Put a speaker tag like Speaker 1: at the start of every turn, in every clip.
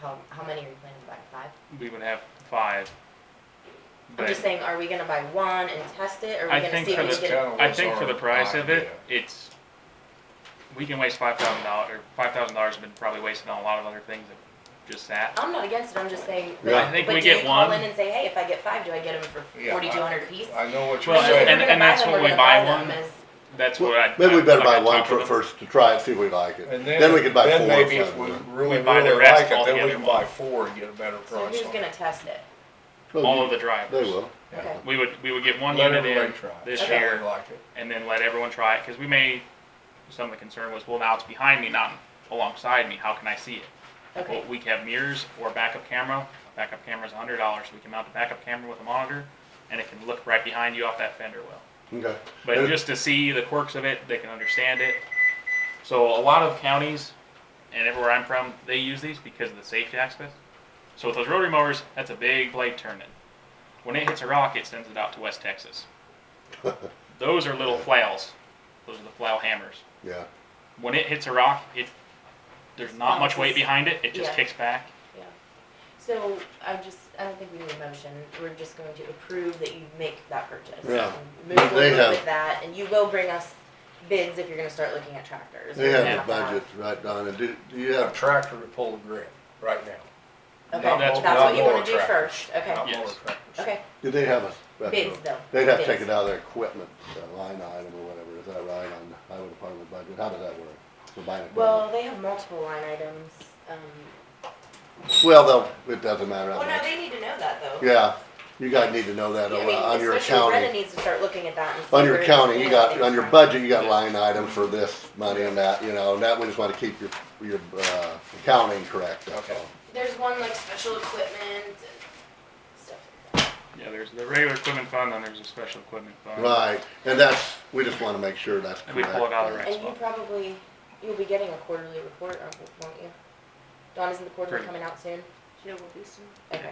Speaker 1: How, how many are you planning to buy? Five?
Speaker 2: we would have five.
Speaker 1: I'm
Speaker 2: But
Speaker 1: just saying, are we gonna buy one and test it, or are
Speaker 2: I
Speaker 1: we gonna
Speaker 2: think
Speaker 1: see
Speaker 2: for
Speaker 1: if
Speaker 2: the
Speaker 1: we can get?
Speaker 3: town-
Speaker 2: I think for the
Speaker 3: What's our
Speaker 2: price of it,
Speaker 3: idea?
Speaker 2: it's, we can waste five thousand dollars, or five thousand dollars has been probably wasted on a lot of other things that just sat.
Speaker 1: I'm not against it, I'm just saying,
Speaker 2: I
Speaker 1: but,
Speaker 2: think
Speaker 1: but
Speaker 2: we
Speaker 1: do you
Speaker 2: get
Speaker 1: call
Speaker 2: one.
Speaker 1: in and say, hey, if I get five, do I get them for
Speaker 3: Yeah,
Speaker 1: forty-two
Speaker 3: I-
Speaker 1: hundred apiece?
Speaker 3: I know what you're
Speaker 2: Well,
Speaker 1: Because if
Speaker 2: and-
Speaker 1: we're
Speaker 3: saying,
Speaker 1: gonna
Speaker 2: and that's
Speaker 1: buy them,
Speaker 2: what
Speaker 1: we're
Speaker 2: we
Speaker 1: gonna
Speaker 2: buy
Speaker 1: them
Speaker 2: one.
Speaker 1: as-
Speaker 2: That's
Speaker 4: Well,
Speaker 2: what I.
Speaker 4: Maybe we
Speaker 2: I-
Speaker 4: better
Speaker 2: I
Speaker 4: buy
Speaker 2: gotta
Speaker 4: one
Speaker 2: talk to
Speaker 4: for
Speaker 2: them.
Speaker 4: first to try it, see if we like it.
Speaker 3: and
Speaker 4: Then we could buy
Speaker 3: then
Speaker 4: four.
Speaker 3: maybe
Speaker 4: or
Speaker 3: if we
Speaker 4: something.
Speaker 3: really,
Speaker 2: We buy the
Speaker 3: really
Speaker 2: rest
Speaker 3: like it, then we
Speaker 2: altogether.
Speaker 3: can buy four and get a better
Speaker 1: So
Speaker 3: price
Speaker 1: who's
Speaker 3: on
Speaker 1: gonna
Speaker 3: it.
Speaker 1: test it?
Speaker 4: Well,
Speaker 2: All of the drivers.
Speaker 4: They will.
Speaker 3: Yeah.
Speaker 1: Okay.
Speaker 2: We would, we would get one
Speaker 3: Let
Speaker 2: unit in
Speaker 3: everybody try it,
Speaker 2: this
Speaker 3: see how
Speaker 2: year
Speaker 3: they like it.
Speaker 2: and then let everyone try it, cause we may, some of the concern was, well, now it's behind me, not alongside me, how can I see it?
Speaker 1: Okay,
Speaker 2: Well, we can have mirrors or backup camera. Backup camera's a hundred dollars. We can mount the backup camera with a monitor, and it can look right behind you off that fender well.
Speaker 4: Okay.
Speaker 2: But
Speaker 4: Yeah.
Speaker 2: just to see the quirks of it, they can understand it. So a lot of counties, and everywhere I'm from, they use these because of the safety aspect. So with those rotary mowers, that's a big blade turning. When it hits a rock, it sends it out to West Texas. those are little flails. Those are the flail hammers.
Speaker 4: Yeah.
Speaker 2: When it hits a rock, it there's not much weight
Speaker 1: Bounces.
Speaker 2: behind it. It just
Speaker 1: Yeah.
Speaker 2: kicks back.
Speaker 1: yeah. So, I just, I don't think we need a motion, we're just going to approve that you make that purchase.
Speaker 4: Yeah.
Speaker 1: and
Speaker 4: They
Speaker 1: Move forward
Speaker 4: have-
Speaker 1: with that, and you will bring us bids if you're gonna start looking at tractors.
Speaker 4: They
Speaker 1: We're gonna
Speaker 4: have the
Speaker 1: to
Speaker 4: budget right down and do, do you
Speaker 3: A
Speaker 4: have,
Speaker 3: tractor to pull the grip, right now.
Speaker 1: Okay,
Speaker 2: No,
Speaker 1: that's
Speaker 2: that's-
Speaker 1: what you
Speaker 3: Not
Speaker 1: wanna
Speaker 3: more
Speaker 1: do
Speaker 3: tractors.
Speaker 1: first, okay,
Speaker 3: Not mower
Speaker 2: Yes.
Speaker 3: tractors.
Speaker 1: okay,
Speaker 4: do they have a special?
Speaker 1: bids though.
Speaker 4: They'd have to
Speaker 1: bids.
Speaker 4: take it out of their equipment, uh, line item or whatever, is that right, on the highway department budget, how does that work? For buying
Speaker 1: Well,
Speaker 4: equipment?
Speaker 1: they have multiple line items, um.
Speaker 4: Well, though, it doesn't matter,
Speaker 1: Well,
Speaker 4: how
Speaker 1: no,
Speaker 4: much.
Speaker 1: they need to know that though.
Speaker 4: yeah, you guys need to know that
Speaker 1: I
Speaker 4: on
Speaker 1: mean,
Speaker 4: on your
Speaker 1: especially Brenda
Speaker 4: accounting,
Speaker 1: needs to start looking at that and see
Speaker 4: on your
Speaker 1: where
Speaker 4: accounting,
Speaker 1: it's
Speaker 4: you
Speaker 1: going
Speaker 4: got,
Speaker 1: and
Speaker 4: on your
Speaker 1: trying-
Speaker 4: budget, you got line item for this money and that, you know, and that, we just wanna keep your, your, uh, accounting correct, that's
Speaker 3: Okay.
Speaker 4: all.
Speaker 1: There's one like special equipment and stuff like that.
Speaker 2: Yeah, there's the regular equipment fund, and there's a special equipment fund.
Speaker 4: Right, and that's, we just wanna make sure that's
Speaker 2: And
Speaker 4: correct.
Speaker 2: we pull it out of the That's
Speaker 1: And you
Speaker 2: fine.
Speaker 1: probably, you'll be getting a quarterly report, aren't- won't you? Dawn, isn't the quarterly
Speaker 2: Pretty.
Speaker 1: coming out soon?
Speaker 5: She will be soon.
Speaker 1: Okay.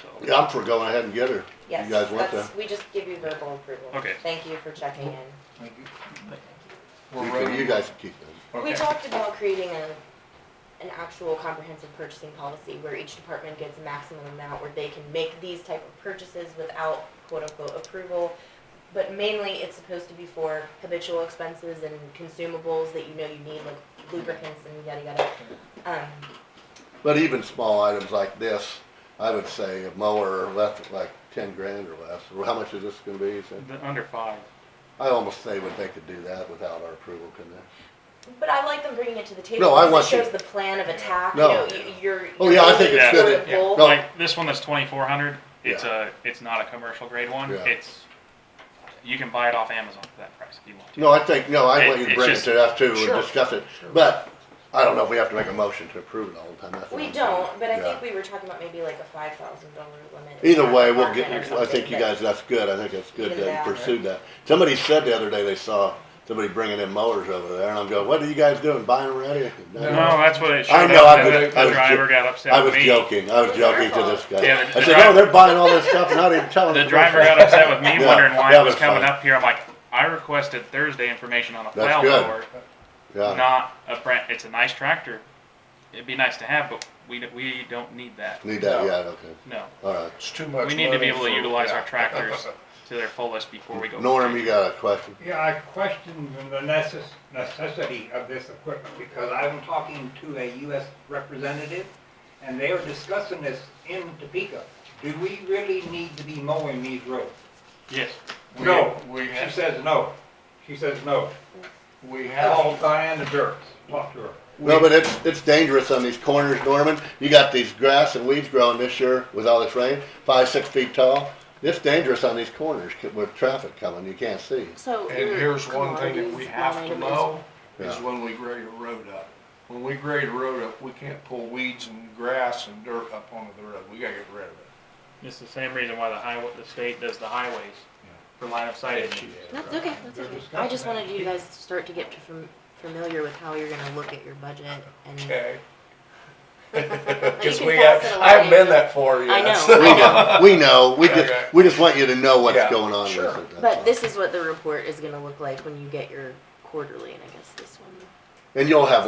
Speaker 2: So,
Speaker 4: Yeah, I'm for going ahead and get her, you
Speaker 1: Yes,
Speaker 4: guys want that?
Speaker 1: that's, we just give you verbal approval.
Speaker 2: Okay.
Speaker 1: Thank you for checking in.
Speaker 3: Thank you.
Speaker 4: You
Speaker 3: We're
Speaker 4: can-
Speaker 3: ready.
Speaker 4: You guys can keep them.
Speaker 1: We
Speaker 3: Okay.
Speaker 1: talked about creating a, an actual comprehensive purchasing policy where each department gets a maximum amount where they can make these type of purchases without quote-unquote approval. But mainly, it's supposed to be for habitual expenses and consumables that you know you need, like lubricants and yada yada. Um,
Speaker 4: But even small items like this, I would say a mower left like ten grand or less. Or How much is this gonna be? you said?
Speaker 2: the under five.
Speaker 4: I almost say would they could do that without our approval, couldn't they?
Speaker 1: But I like them bringing it to the table.
Speaker 4: No, I
Speaker 1: because
Speaker 4: want
Speaker 1: it
Speaker 4: you-
Speaker 1: shows the plan of attack.
Speaker 4: No.
Speaker 1: You know, y- you're.
Speaker 4: Oh, yeah, I think
Speaker 2: it's
Speaker 1: sort
Speaker 4: good.
Speaker 1: of
Speaker 2: Yeah.
Speaker 1: goal.
Speaker 4: No.
Speaker 2: Like this one that's twenty four hundred. It's a it's not a commercial grade one.
Speaker 4: Yeah.
Speaker 2: It's you can buy it off Amazon for that price if you want to.
Speaker 4: No, I think, no, I want you to
Speaker 2: It-
Speaker 4: bring it
Speaker 2: it's
Speaker 4: to us too
Speaker 2: Sure.
Speaker 4: and discuss it. But I don't know if we have to make a motion to approve it all the time. That's what
Speaker 1: We
Speaker 4: I'm saying.
Speaker 1: don't, but I
Speaker 4: Yeah.
Speaker 1: think we were talking about maybe like a five thousand dollar limit.
Speaker 4: Either way, we'll
Speaker 1: on
Speaker 4: get,
Speaker 1: it or
Speaker 4: I think
Speaker 1: something,
Speaker 4: you guys, that's good. I think that's good
Speaker 1: Either
Speaker 4: that
Speaker 1: that
Speaker 4: you
Speaker 1: or-
Speaker 4: pursued that. Somebody said the other day they saw somebody bringing in mowers over there and I'm going, what are you guys doing? Buying them already?
Speaker 2: No, that's what it showed.
Speaker 4: I know,
Speaker 2: up,
Speaker 4: I
Speaker 2: and
Speaker 4: was-
Speaker 2: the,
Speaker 4: I
Speaker 2: the
Speaker 4: was
Speaker 2: driver
Speaker 4: jo-
Speaker 2: got upset
Speaker 4: I
Speaker 2: with
Speaker 4: was
Speaker 2: me.
Speaker 4: joking. I was
Speaker 1: It's your
Speaker 4: joking to this
Speaker 1: fault.
Speaker 4: guy.
Speaker 2: Yeah, the
Speaker 4: I said,
Speaker 2: driver-
Speaker 4: "Oh, they're buying all this stuff, and not even telling
Speaker 2: The
Speaker 4: us."
Speaker 2: driver got upset with me,
Speaker 4: Yeah,
Speaker 2: wondering why
Speaker 4: that
Speaker 2: it was
Speaker 4: was
Speaker 2: coming
Speaker 4: fun.
Speaker 2: up here. I'm like, I requested Thursday information on a
Speaker 4: That's
Speaker 2: plow
Speaker 4: good.
Speaker 2: mower,
Speaker 4: Yeah,
Speaker 2: not a brand. It's a nice tractor. It'd be nice to have, but we don't- we don't need that.
Speaker 4: need that.
Speaker 3: No.
Speaker 4: Yeah, okay,
Speaker 2: No,
Speaker 4: all right.
Speaker 3: It's too much
Speaker 2: we need to be
Speaker 3: money
Speaker 2: able to
Speaker 3: for-
Speaker 2: utilize our
Speaker 3: yeah.
Speaker 2: tractors to their fullest before we go.
Speaker 4: Norm, you got a question?
Speaker 6: Yeah, I question the necess- necessity of this equipment because I'm talking to a US representative and they are discussing this in Topeka. Do we really need to be mowing these roads?
Speaker 2: Yes.
Speaker 3: We-
Speaker 6: No.
Speaker 3: We
Speaker 6: She
Speaker 3: have,
Speaker 6: says no. She says no.
Speaker 3: we have,
Speaker 6: Call Diana Dirks, talk to her.
Speaker 4: No, but it's, it's dangerous on these corners, Norman. You got these grass and weeds growing this year with all this rain, five, six feet tall. It's dangerous on these corners c- with traffic coming. You can't see.
Speaker 5: So.
Speaker 3: and here's one thing that we have to mow, is
Speaker 4: Yeah.
Speaker 3: when we grade a road up. When we grade a road up, we can't pull weeds and grass and dirt up onto the road, we gotta get rid of it.
Speaker 2: It's the same reason why the highway, the state does the highways for line of sight issues.
Speaker 1: That's okay, that's okay. I just wanted you guys to start to get to fam- familiar with how you're gonna look at your budget and.
Speaker 3: Okay.
Speaker 1: you
Speaker 3: Cause
Speaker 1: can
Speaker 3: we
Speaker 1: pass
Speaker 3: have,
Speaker 1: it
Speaker 3: I haven't
Speaker 1: along.
Speaker 3: been that far yet.
Speaker 1: I know.
Speaker 3: so-
Speaker 4: We know, we know. We just,
Speaker 3: Okay.
Speaker 4: we just want you to know what's
Speaker 3: Yeah,
Speaker 4: going on with
Speaker 3: sure.
Speaker 4: it. that's all.
Speaker 1: But this is what the report is gonna look like when you get your quarterly, and I guess this one
Speaker 4: And you'll have